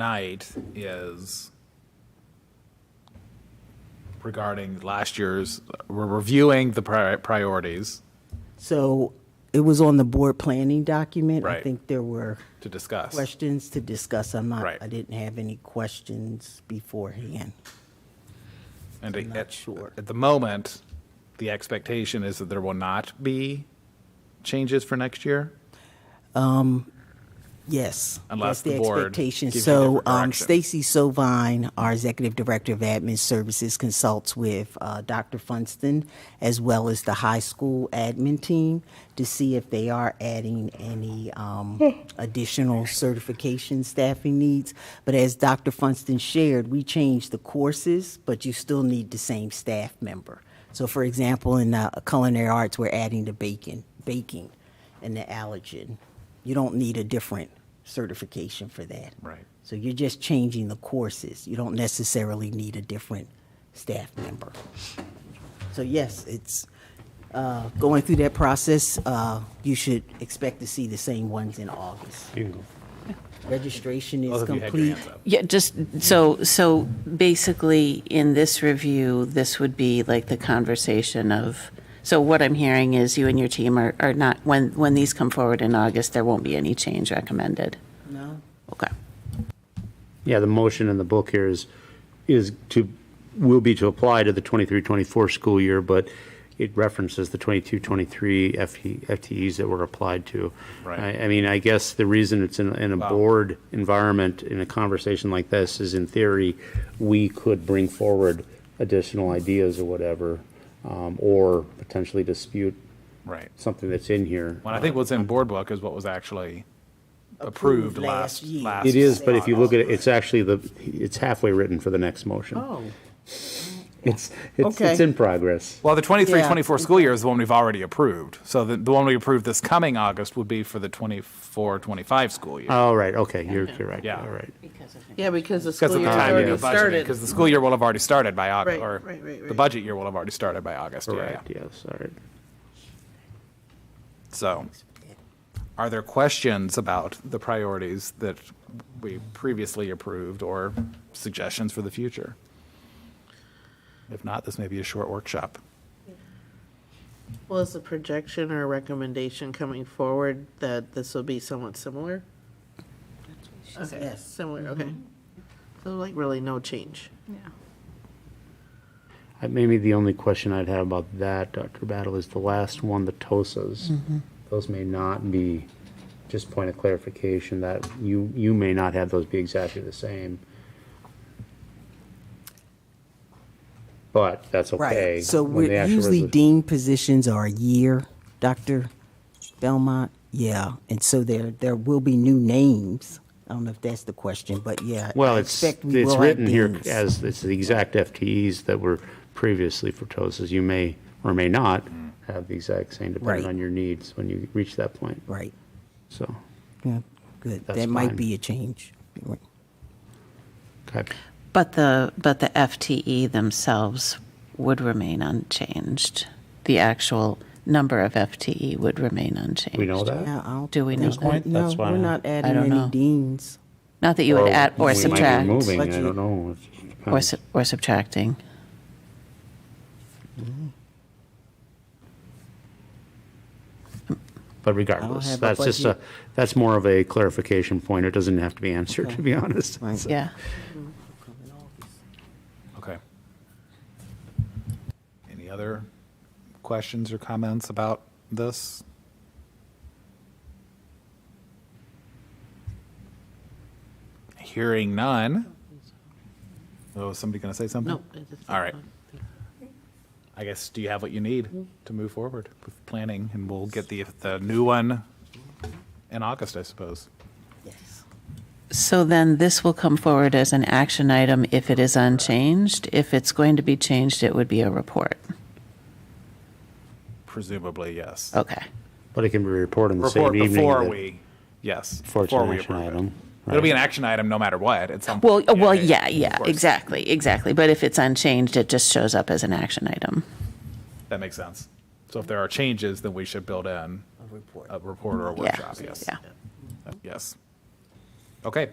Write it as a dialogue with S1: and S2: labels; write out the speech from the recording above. S1: tonight is regarding last year's, we're reviewing the pri- priorities
S2: So it was on the board planning document. I
S1: Right.
S2: think there were
S1: to discuss.
S2: questions to discuss. I'm not,
S1: Right.
S2: I didn't have any questions beforehand.
S1: And
S2: I'm not
S1: at-
S2: sure.
S1: At the moment, the expectation is that there will not be changes for next year?
S2: Yes.
S1: Unless
S2: that's
S1: the board
S2: expectation.
S1: gives you
S2: So
S1: different
S2: um,
S1: direction.
S2: Stacy Sovine, our Executive Director of Admin Services, consults with uh, Dr. Funston as well as the high school admin team to see if they are adding any um, additional certification staffing needs. But as Dr. Funston shared, we changed the courses, but you still need the same staff member. So for example, in uh, culinary arts, we're adding the bacon, baking and the allergen. You don't need a different certification for that.
S1: Right.
S2: So you're just changing the courses. You don't necessarily need a different staff member. So yes, it's uh, going through that process. Uh, You should expect to see the same ones in August. Registration
S1: Both
S2: is
S1: of you had your
S2: complete.
S1: hands up.
S3: Yeah, just, so, so basically, in this review, this would be like the conversation of, so what I'm hearing is you and your team are, are not, when, when these come forward in August, there won't be any change recommended?
S2: No?
S3: Okay.
S4: Yeah, the motion in the book here is, is to, will be to apply to the 23-24 school year, but it references the 22-23 FTE FTEs that were applied to.
S1: Right.
S4: I, I mean, I guess the reason it's in, in a board environment, in a conversation like this, is in theory, we could bring forward additional ideas or whatever, um, or potentially dispute
S1: Right.
S4: something that's in here.
S1: Well, I think what's in board book is what was actually approved
S2: Approved
S1: last,
S2: last year.
S1: last.
S4: It is, but if you look at it, it's actually the, it's halfway written for the next motion.
S1: Oh.
S5: Oh,
S4: It's, it's, it's
S2: Okay.
S4: in progress.
S1: Well, the 23,
S2: Yeah.
S1: 24 school year is the one we've already approved. So the, the one we approved this coming August would be for the 24, 25 school year.
S4: All right, okay, you're correct,
S1: Yeah.
S4: all right.
S5: Yeah, because the
S1: Because
S5: school
S1: of the
S5: year's
S1: timing
S5: already
S1: of budgeting,
S5: started.
S1: because the school year will have already started by August,
S5: Right,
S1: or
S5: right, right,
S1: the
S5: right.
S1: budget year will have already started by August, yeah.
S4: Correct, yes, all right.
S1: So, are there questions about the priorities that we previously approved or suggestions for the future? If not, this may be a short workshop.
S5: Was the projection or recommendation coming forward that this will be somewhat similar? Okay,
S2: Yes.
S5: similar, okay. So like really no change.
S4: I- Maybe the only question I'd have about that, Dr. Battle, is the last one, the TOSAs.
S2: Mm-hmm.
S4: Those may not be, just point of clarification, that you, you may not have those be exactly the same. But that's okay.
S2: Right. So
S4: when the
S2: we're
S4: actual
S2: usually
S4: resolu-
S2: dean positions are a year, Dr. Belmont. Yeah. And so there, there will be new names. I don't know if that's the question, but yeah. I
S4: Well, it's,
S2: expect we
S4: it's
S2: will have
S4: written here
S2: deans.
S4: as, it's the exact FTEs that were previously for TOSAs. You may or may not have the exact same,
S2: Mm.
S4: depending
S2: Right.
S4: on your needs when you reach that point,
S2: Right.
S4: so.
S2: Yeah, good.
S4: That's
S2: That might
S4: fine.
S2: be a change. Right.
S4: okay.
S3: But the, but the FTE themselves would remain unchanged. The actual number of FTE would remain unchanged.
S4: We know that?
S2: Yeah, I don't.
S3: Do we know
S2: think-
S3: that?
S2: No,
S4: That's why
S2: we're
S4: I-
S2: not
S3: I
S2: adding
S3: don't
S2: any
S3: know.
S2: deans.
S3: Not that you would add
S4: we
S3: or
S4: might be
S3: subtract,
S4: Moving, I
S2: But you-
S4: don't know.
S3: or su- or subtracting.
S4: But regardless,
S2: have a
S4: that's just a,
S2: budget.
S4: that's more of a clarification point. It doesn't have to be answered, to be honest.
S2: Right.
S4: So-
S3: Yeah.
S1: Okay. Any other questions or comments about this? Hearing none. Oh, is somebody going to say something?
S5: No. Mm-hmm. I just-
S1: All right. I guess, do you have what you need to move forward with planning? And we'll get the, the new one in August, I suppose.
S2: Yes.
S3: So then this will come forward as an action item if it is unchanged. If it's going to be changed, it would be a report.
S1: Presumably, yes.
S3: Okay.
S4: But it can be reported in the same
S1: Report
S4: evening.
S1: before
S4: that-
S1: we, yes.
S4: Before it's
S1: before
S4: an
S1: we
S4: action
S1: approve it.
S4: item,
S1: It'll be
S4: right.
S1: an action item no matter what at some.
S3: Well, uh,
S1: point.
S3: well, yeah, yeah,
S1: of course.
S3: exactly, exactly. But if it's unchanged, it just shows up as an action item.
S1: That makes sense. So if there are changes, then we should build in
S2: report.
S1: a report or a
S3: Yeah.
S1: workshop, yes.
S3: Yeah.
S1: Yes. Okay.